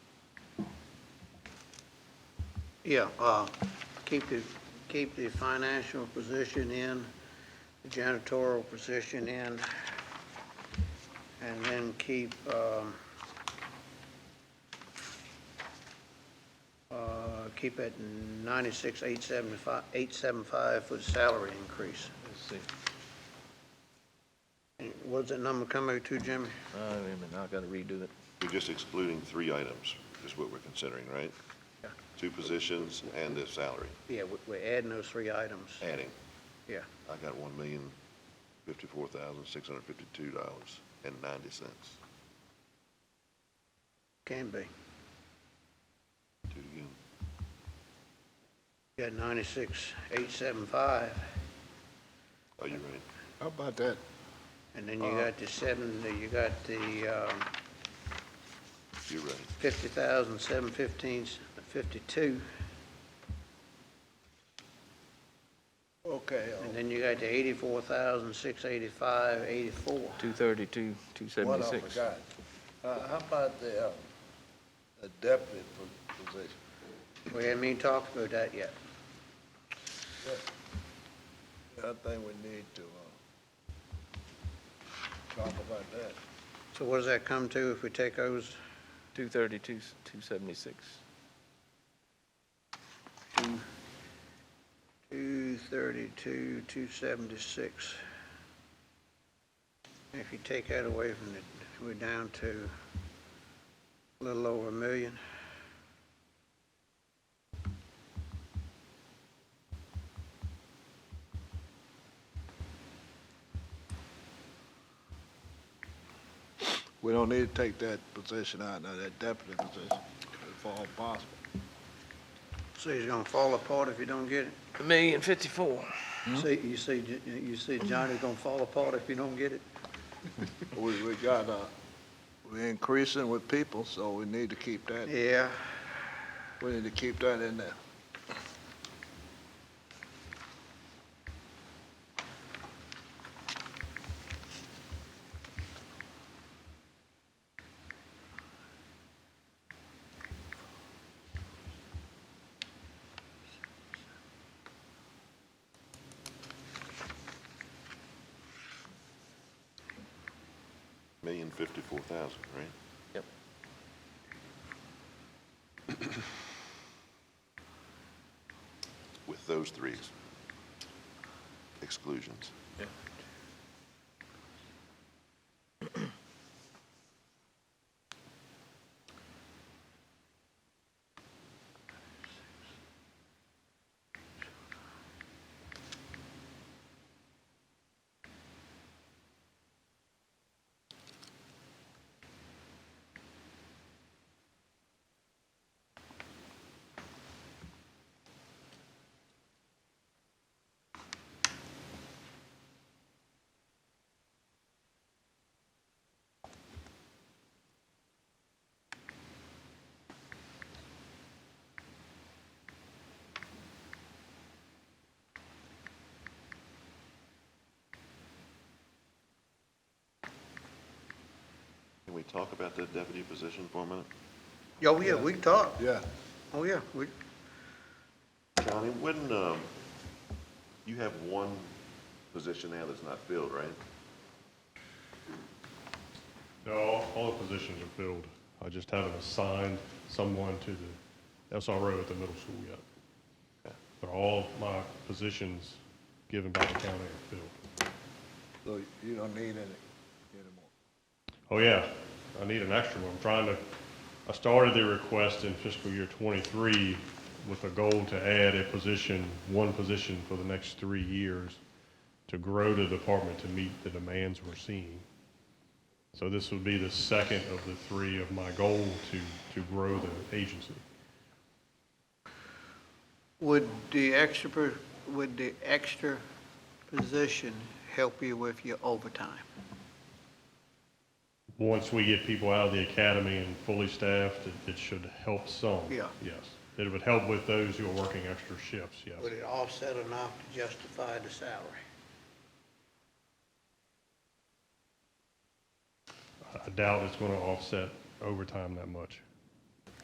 yeah, uh, keep the, keep the financial position in, the janitorial position in, and then keep, um, uh, keep it ninety-six, eight seventy-five, eight seventy-five for the salary increase. Let's see, And What does that number come out to, Jimmy? Uh, wait a minute, now I gotta redo it. We're just excluding three items, is what we're considering, right? Yeah. Two positions and the salary, Yeah, we- we're adding those three items. adding. Yeah. I got one million fifty-four thousand six hundred fifty-two dollars and ninety cents. Can be. Do it again. You got ninety-six, eight seven five, Are you right? How about that? and then you got the seven, you got the, um, You're right. fifty thousand, seven fifteen, fifty-two, Okay, uh, and then you got the eighty-four thousand, six eighty-five, eighty-four. Two thirty-two, two uh, what I seventy-six. forgot. Uh, How about the uh, the deputy po- position? We haven't even talked about that yet. I think we need to uh, talk about that. So what does that come to if we take those, Two thirty-two, two seventy-six. two thirty-two, two seventy-six? If you take that away from it, we're down to a little over a million. We don't need to take that position out, now, that deputy position, if all possible. See, it's gonna fall apart if you don't get it. A million fifty-four. See, you see, J- you see Johnny's gonna fall apart if you don't get it. We, we got, uh, we're increasing with people, so we need to keep that, Yeah. we need to keep that in there. Million fifty-four thousand, right? Yep. With those three ex- exclusions. Can we talk about the deputy position for a minute? Oh, yeah, we can talk. Yeah. Oh, yeah, we, Johnny, when, um, you have one position now that's not filled, right? No, all- all the positions are filled. I just haven't assigned someone to the SRO at the middle school yet. But all my positions given by the county are filled. So you don't need any anymore. Oh, yeah, I need an extra one. I'm trying to, I started the request in fiscal year '23 with a goal to add a position, one position for the next three years to grow the department to meet the demands we're seeing. So this would be the second of the three of my goal to, to grow the agency. would the extra, per- would the extra position help you with your overtime? Once we get people out of the academy and fully staffed, it, it should help some. Yeah. Yes. It would help with those who are working extra shifts, yes. Would it offset enough to justify the salary? I doubt it's going to offset overtime that much.